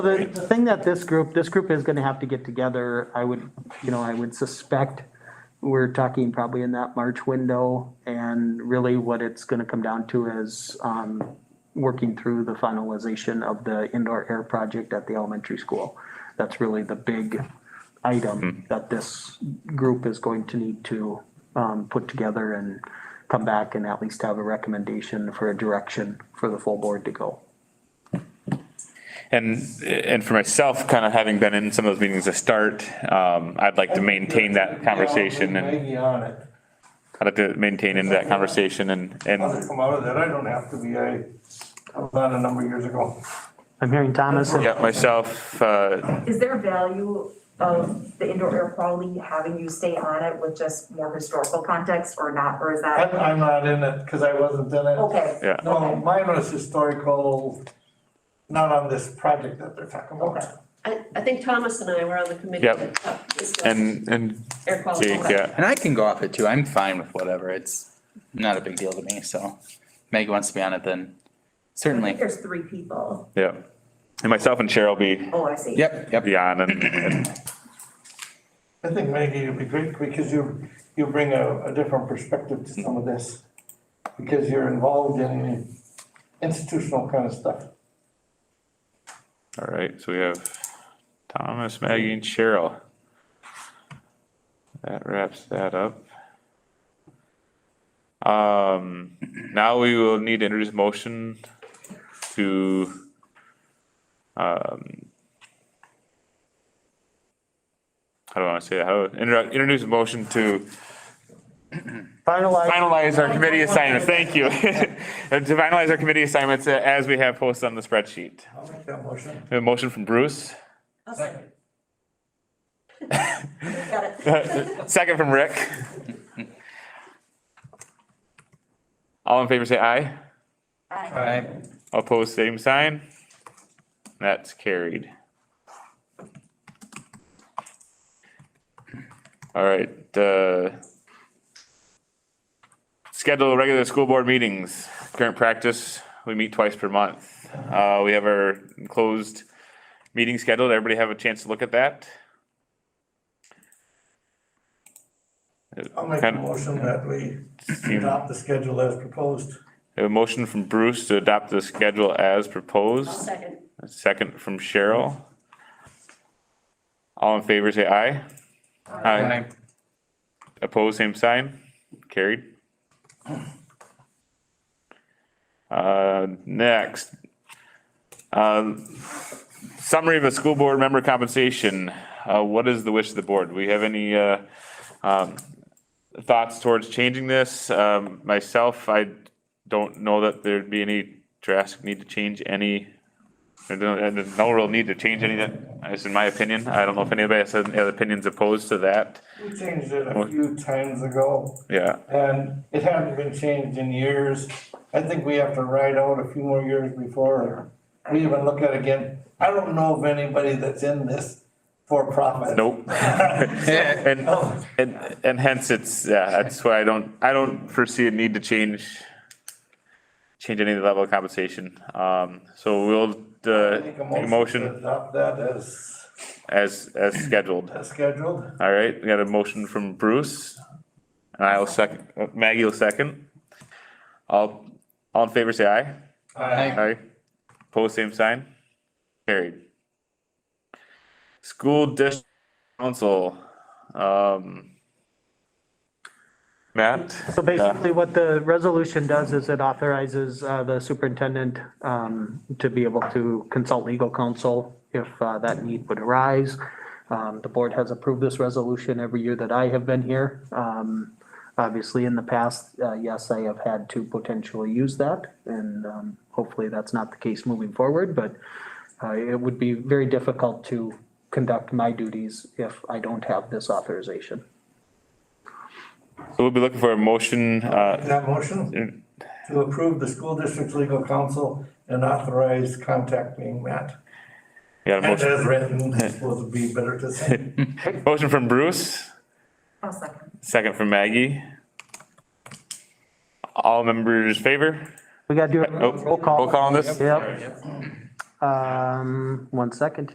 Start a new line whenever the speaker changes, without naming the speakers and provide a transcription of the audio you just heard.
The, the thing that this group, this group is gonna have to get together, I would, you know, I would suspect we're talking probably in that March window, and really what it's gonna come down to is, um, working through the finalization of the indoor air project at the elementary school. That's really the big item that this group is going to need to, um, put together and come back and at least have a recommendation for a direction for the full board to go.
And, and for myself, kind of having been in some of those meetings to start, um, I'd like to maintain that conversation and
Bring me on it.
I'd like to maintain into that conversation and,
I'll
and
come out of that. I don't have to be. I, I was on a number of years ago.
I'm hearing Thomas. and-
yeah, myself, uh,
Is there value of the indoor air quality having you stay on it with just more historical context or not, or is
I'm,
that?
I'm not in it because I wasn't in it.
Okay.
Yeah.
No, mine was historical, not on this project that they're talking
Okay.
about.
I, I think Thomas and I were on the committee.
Yep.
that discussed
and, and
Air quality.
Jake, yeah.
And I can go off it too. I'm fine with whatever. It's not a big deal to me, so. Meg wants to be on it then,
I think
certainly.
There's three people.
Yeah. And myself and Cheryl be,
Oh, I see.
Yep, yep.
be on and, and,
I think Maggie would be great because you, you bring a, a different perspective to some of this. Because you're involved in institutional kind of stuff.
all right, so we have Thomas, Maggie and Cheryl. That wraps that up. Um, now we will need to introduce motion to, um, how do I want to say that? How, introdu- introduce a motion to
Finalize
finalize our committee assignment. Thank you. To finalize our committee assignments uh, as we have posted on the spreadsheet.
I'll make that motion.
We have A motion from Bruce,
Second.
Got it.
second from Rick. All in favor, say aye.
Aye.
Alright,
All Opposed, same sign. That's carried. All right, uh, schedule regular school board meetings. Current practice, we meet twice per month. Uh, we have our closed meeting scheduled. Everybody have a chance to look at that?
I'll make a motion that we adopt the schedule as proposed.
A motion from Bruce to adopt the schedule as
I'll
proposed.
second.
A Second from Cheryl. All in favor, say aye. Aye. Opposed, same sign. Carried. Uh, next. Uh, Summary of a school board member compensation. Uh, what is the wish of the board? Do we have any, uh, um, thoughts towards changing this? Um, myself, I don't know that there'd be any drastic need to change any there's no- There's no real need to change any of that, that's in my opinion. I don't know if anybody has any other opinions opposed to that.
We changed it a few times ago.
Yeah,
And it hasn't been changed in years. I think we have to ride out a few more years before we even look at it again. I don't know of anybody that's in this for profit.
nope. And, and, and hence it's, yeah, that's why I don't, I don't foresee a need to change, change any of the level of compensation. Um, so we'll, uh, make
Make
a
to
motion
Adopt that as,
as, as scheduled.
as scheduled.
All right, we got a motion from Bruce. And I'll second, Maggie will second. All, all in favor, say aye.
I
Aye. Pose same sign. Carried. School district council, um. Matt?
So basically, what the resolution does is it authorizes uh, the superintendent um, to be able to consult legal counsel if uh, that need would arise. Um, The board has approved this resolution every year that I have been here. Um, Obviously, in the past, uh, yes, I have had to potentially use that, and um, hopefully that's not the case moving forward, but uh, it would be very difficult to conduct my duties if I don't have this authorization.
So we'll be looking for a motion, uh,
That motion to approve the school district's legal counsel and authorize contacting Matt.
yeah, a
And
motion,
as written, it's supposed to be better to say.
motion from Bruce,
I'll second.
second from Maggie. All members Oh, favor?
We got to do a
Nope.
Oh, roll call.
Roll call on this?
Yep. Um, one second